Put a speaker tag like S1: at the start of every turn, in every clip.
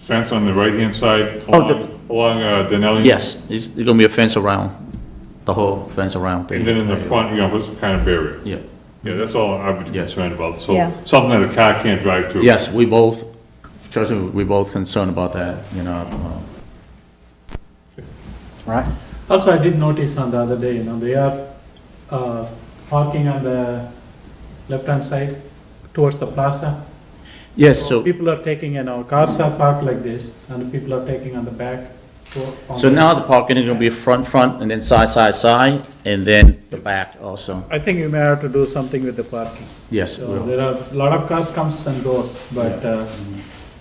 S1: fence on the right-hand side
S2: Oh, the-
S1: along, along uh, Denali?
S2: Yes, it's it's gonna be a fence around, the whole fence around. the-
S1: And then in the front, you know, put some kind of barrier.
S2: Yeah.
S1: Yeah, that's all I would be
S2: Yeah.
S1: concerned about, so,
S3: Yeah.
S1: something that a car can't drive through.
S2: Yes, we both, trust me, we both concerned about that, you know. uh,
S4: right?
S5: Also, I did notice on the other day, you know, they are uh, parking on the left-hand side towards the plaza.
S2: Yes, so.
S5: People are taking, you know, cars are parked like this, and people are taking on the back. to- on
S2: So
S5: the-
S2: now the parking is gonna be front, front, and then side, side, side, and then the back also.
S5: I think you may have to do something with the parking.
S2: Yes, we
S5: So
S2: will.
S5: there are, a lot of cars comes and goes, but uh,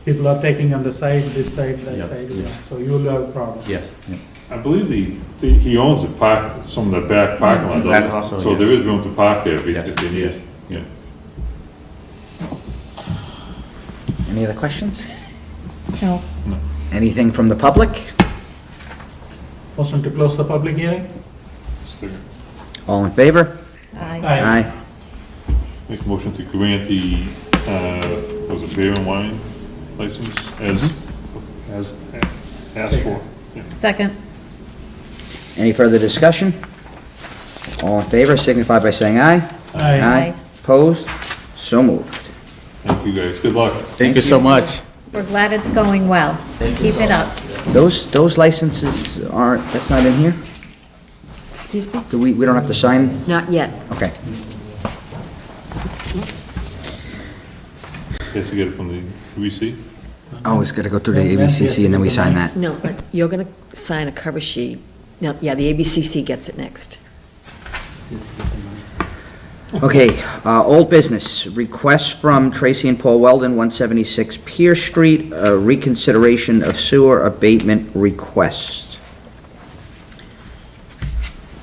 S5: people are taking on the side, this side,
S2: Yeah,
S5: that side, you
S2: yeah.
S5: know, so you will have a problem.
S2: yes. yeah.
S1: I believe the, the- he owns the park, some of the back parking lot,
S2: Back
S1: doesn't
S2: also,
S1: he? so
S2: yes.
S1: there is room to park there if he-
S2: Yes,
S1: if he needs. Yeah.
S4: Any other questions?
S3: No.
S4: Anything from the public?
S5: Motion to close the public hearing?
S4: All in favor?
S3: Aye.
S1: Make a motion to grant the, uh, was it beer and wine license as,
S2: Mm-hmm.
S1: as asked for. Yeah.
S3: Second.
S4: Any further discussion? All in favor signify by saying aye.
S3: Aye.
S4: Opposed? So moved.
S1: Thank you guys, good luck.
S2: Thank you so much.
S3: We're glad it's going well.
S2: Thank you so
S3: Keep it up.
S4: Those, those licenses aren't, that's not in here?
S6: Excuse me?
S4: Do we, we don't have to sign?
S6: Not yet.
S4: Okay.
S1: Guess you get it from the UBC?
S4: Oh, it's got to go through the ABCC and then we sign that.
S6: No, but you're going to sign a cover sheet. No, yeah, the ABCC gets it next.
S4: Okay, uh, old business, request from Tracy and Paul Weldon, 176 Pierce Street, uh, reconsideration of sewer abatement request.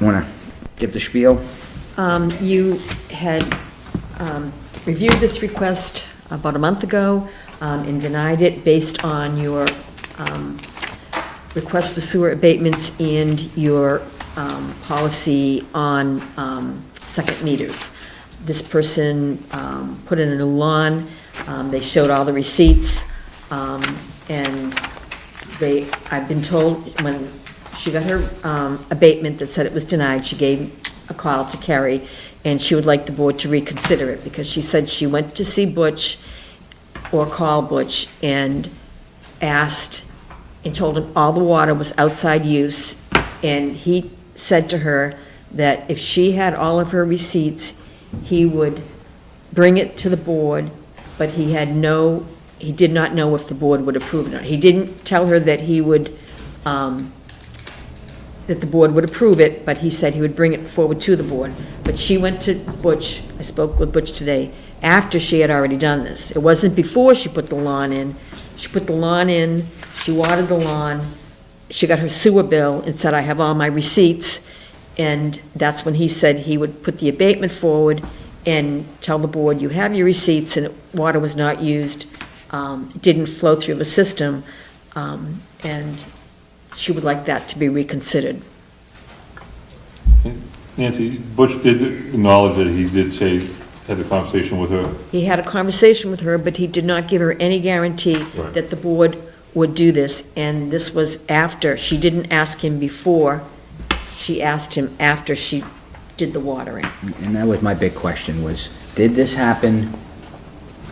S4: Want to give the spiel?
S6: Um, You had um, reviewed this request about a month ago um, and denied it based on your um, request for sewer abatements and your um, policy on um, second meters. This person um, put in a new lawn, um, they showed all the receipts, um, and they, I've been told, when she got her um, abatement that said it was denied, she gave a call to Carrie, and she would like the board to reconsider it, because she said she went to see Butch or call Butch and asked and told him all the water was outside use, and he said to her that if she had all of her receipts, he would bring it to the board, but he had no, he did not know if the board would approve it or not. He didn't tell her that he would, um, that the board would approve it, but he said he would bring it forward to the board. But she went to Butch, I spoke with Butch today, after she had already done this. It wasn't before she put the lawn in. She put the lawn in, she watered the lawn, she got her sewer bill and said, I have all my receipts. And that's when he said he would put the abatement forward and tell the board, you have your receipts and water was not used, um, didn't flow through the system. Um, and she would like that to be reconsidered.
S1: Nancy, Butch did acknowledge that he did say, had a conversation with her.
S6: He had a conversation with her, but he did not give her any guarantee
S1: Right.
S6: that the board would do this, and this was after, she didn't ask him before, she asked him after she did the watering.
S4: And that was my big question was, did this happen?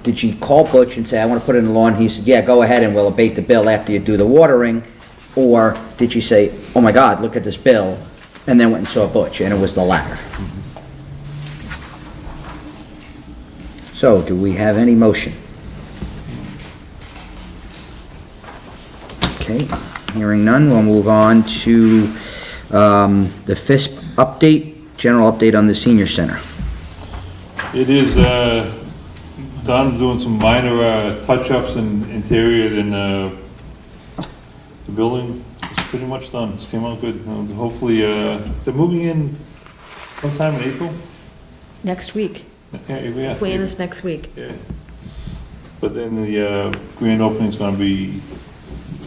S4: Did she call Butch and say, I want to put in the lawn? He said, yeah, go ahead and we'll abate the bill after you do the watering? Or did she say, oh my God, look at this bill? And then went and saw Butch and it was the latter. So do we have any motion? Okay, hearing none, we'll move on to um, the FISP update, general update on the senior center.
S1: It is, uh, Don's doing some minor uh, touch-ups and interior in uh, the building. It's pretty much done, it's came out good. And Hopefully, uh, they're moving in sometime in April?
S6: Next week,
S1: Yeah, yeah.
S6: plan is next week.
S1: Yeah. But then the uh, grand opening's gonna be,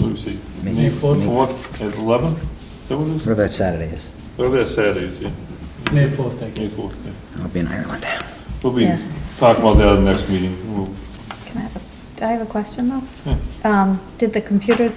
S1: let me see,
S4: May
S1: May
S4: fourth.
S1: 4th at 11? Is that what it is?
S4: Whatever that Saturday is,
S1: Oh, that's Saturday, yeah,
S5: May fourth, I
S1: May
S5: guess.
S1: 4th. yeah.
S4: I'll be in Ireland.
S1: We'll be
S3: Yeah.
S1: talking about that at the next meeting. We'll-
S3: Can I have a I have a question though. Um, did the computers